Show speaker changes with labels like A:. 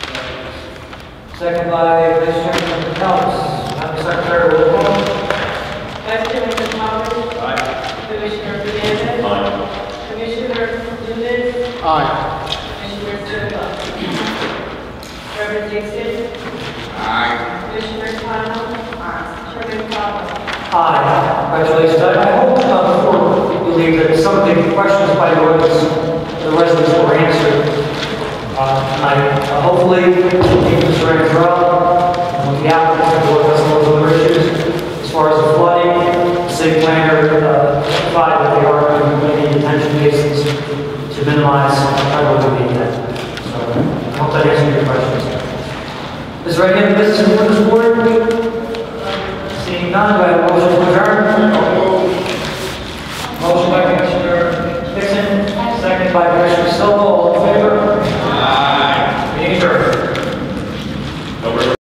A: Second by Vice Chairman Pelz. Madam Secretary, roll call.
B: Vice Chairman Thomas. Commissioner Fernandez. Commissioner Loomis. Commissioner Silva. Reverend Dixon. Commissioner Connell. Chairman Thomas.
A: Aye. Congratulations. I I hope, uh, before you leave, that some of the questions by the ordinance, the residents were answered. Uh, tonight. Uh, hopefully, things are in trouble. The applicant will address those other issues. As far as the flooding, the city planner, uh, provided that they are going to make detention cases to minimize, I don't believe that. So, I hope that answered your questions. Is there any other business before this board? Seeing none, do I have